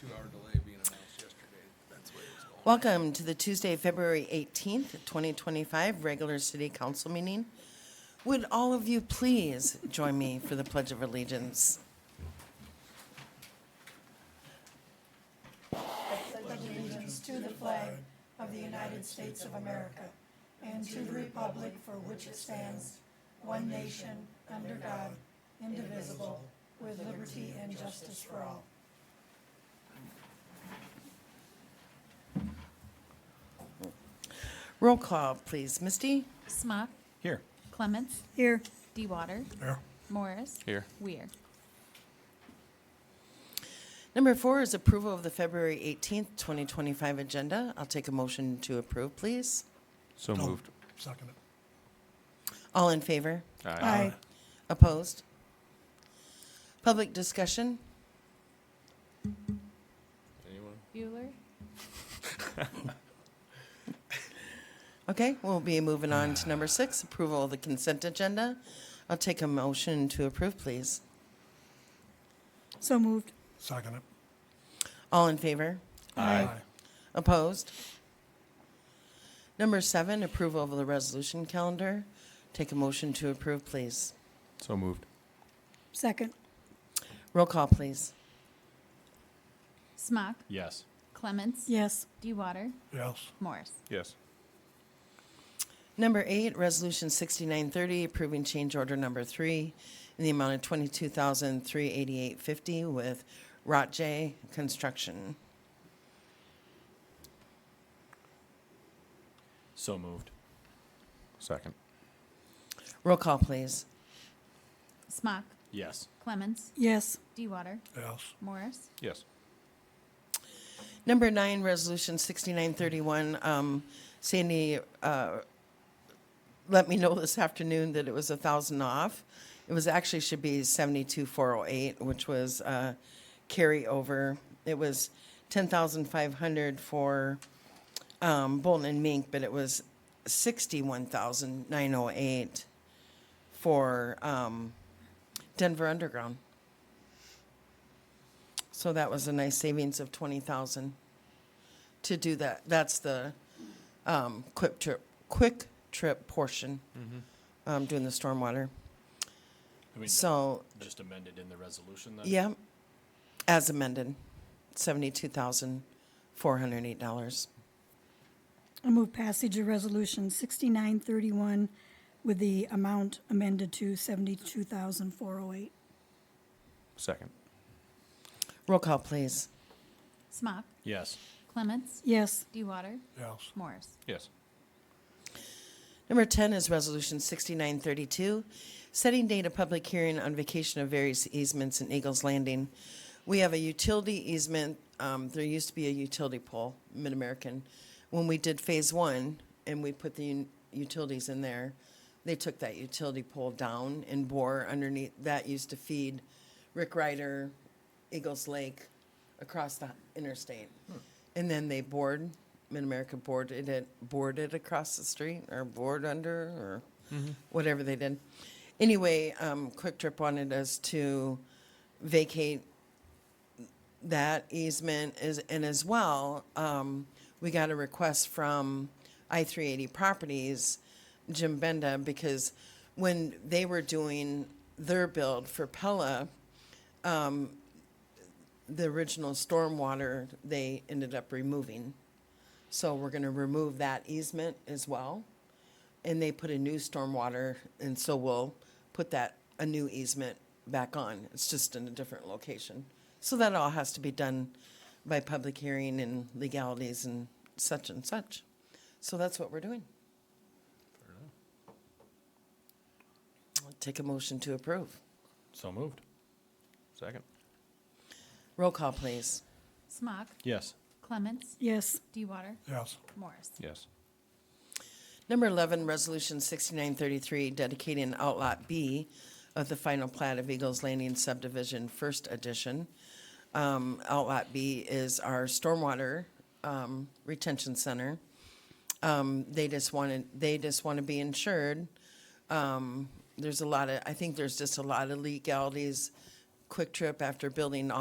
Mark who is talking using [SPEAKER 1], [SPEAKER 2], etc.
[SPEAKER 1] two-hour delay being announced yesterday, that's where it was going.
[SPEAKER 2] Welcome to the Tuesday, February 18th, 2025 regular city council meeting. Would all of you please join me for the Pledge of Allegiance? Roll call, please. Misty?
[SPEAKER 3] Smock.
[SPEAKER 4] Here.
[SPEAKER 3] Clements.
[SPEAKER 5] Here.
[SPEAKER 3] DeWater.
[SPEAKER 4] Here.
[SPEAKER 3] Morris.
[SPEAKER 4] Here.
[SPEAKER 3] Weir.
[SPEAKER 2] Number four is approval of the February 18th, 2025 agenda. I'll take a motion to approve, please.
[SPEAKER 4] So moved.
[SPEAKER 1] Second.
[SPEAKER 2] All in favor?
[SPEAKER 5] Aye.
[SPEAKER 2] Opposed? Public discussion?
[SPEAKER 3] Bueller.
[SPEAKER 2] Okay, we'll be moving on to number six, approval of the consent agenda. I'll take a motion to approve, please.
[SPEAKER 5] So moved.
[SPEAKER 1] Second it.
[SPEAKER 2] All in favor? Opposed? Number seven, approval of the resolution calendar. Take a motion to approve, please.
[SPEAKER 4] So moved.
[SPEAKER 5] Second.
[SPEAKER 2] Roll call, please.
[SPEAKER 3] Smock.
[SPEAKER 4] Yes.
[SPEAKER 3] Clements.
[SPEAKER 5] Yes.
[SPEAKER 3] DeWater.
[SPEAKER 1] Yes.
[SPEAKER 3] Morris.
[SPEAKER 4] Yes.
[SPEAKER 2] Number eight, resolution 6930, approving change order number three in the amount of $22,388.50 with Rotjay Construction.
[SPEAKER 4] So moved. Second.
[SPEAKER 2] Roll call, please.
[SPEAKER 3] Smock.
[SPEAKER 4] Yes.
[SPEAKER 3] Clements.
[SPEAKER 5] Yes.
[SPEAKER 3] DeWater.
[SPEAKER 1] Yes.
[SPEAKER 3] Morris.
[SPEAKER 4] Yes.
[SPEAKER 2] Number nine, resolution 6931, um, Sandy, uh, let me know this afternoon that it was a thousand off. It was actually should be 72408, which was, uh, carryover. It was 10,500 for, um, Bolton and Mink, but it was 61,908 for, um, Denver Underground. So that was a nice savings of twenty thousand to do that. That's the um, quick trip, quick trip portion, um, doing the stormwater.
[SPEAKER 6] I mean,
[SPEAKER 2] So,
[SPEAKER 6] just amended in the resolution then?
[SPEAKER 2] yeah, as amended, seventy-two thousand four hundred eight dollars.
[SPEAKER 5] I move passage of resolution sixty-nine thirty-one with the amount amended to seventy-two thousand four oh eight.
[SPEAKER 4] Second.
[SPEAKER 2] Roll call, please.
[SPEAKER 3] Smock.
[SPEAKER 6] Yes.
[SPEAKER 3] Clements.
[SPEAKER 5] Yes.
[SPEAKER 3] DeWater.
[SPEAKER 1] Yes.
[SPEAKER 3] Morris.
[SPEAKER 4] Yes.
[SPEAKER 2] Number 10 is Resolution 6932, setting date of public hearing on vacation of various easements in Eagles Landing. We have a utility easement, um, there used to be a utility pole, Mid-American. When we did Phase 1 and we put the un- utilities in there, they took that utility pole down and bore underneath, that used to feed Rick Ryder, Eagles Lake, across the interstate. And then they bored, Mid-America boarded it, boarded across the street or bored under or whatever they did. Anyway, um, Quick Trip wanted us to vacate that easement is, and as well, um, we got a request from I three eighty properties, Jim Benda, because when they were doing their build for Pella, the original stormwater, they ended up removing. So we're gonna remove that easement as well. And they put a new stormwater, and so we'll put that, a new easement back on. It's just in a different location. So that all has to be done by public hearing and legalities and such and such. So that's what we're doing. I'll Take a motion to approve.
[SPEAKER 6] So moved.
[SPEAKER 4] Second.
[SPEAKER 2] Roll call, please.
[SPEAKER 3] Smock.
[SPEAKER 6] Yes.
[SPEAKER 3] Clements.
[SPEAKER 5] Yes.
[SPEAKER 3] DeWater.
[SPEAKER 1] Yes.
[SPEAKER 3] Morris.
[SPEAKER 4] Yes.
[SPEAKER 2] Number 11, Resolution 6933, dedicating Outlot B of the final plat of Eagles Landing subdivision, First Edition. Um, Outlot B is our stormwater um, retention center. Um, They just wanted, they just want to be insured. Um, There's a lot of, I think there's just a lot of legalities. Quick Trip, after building all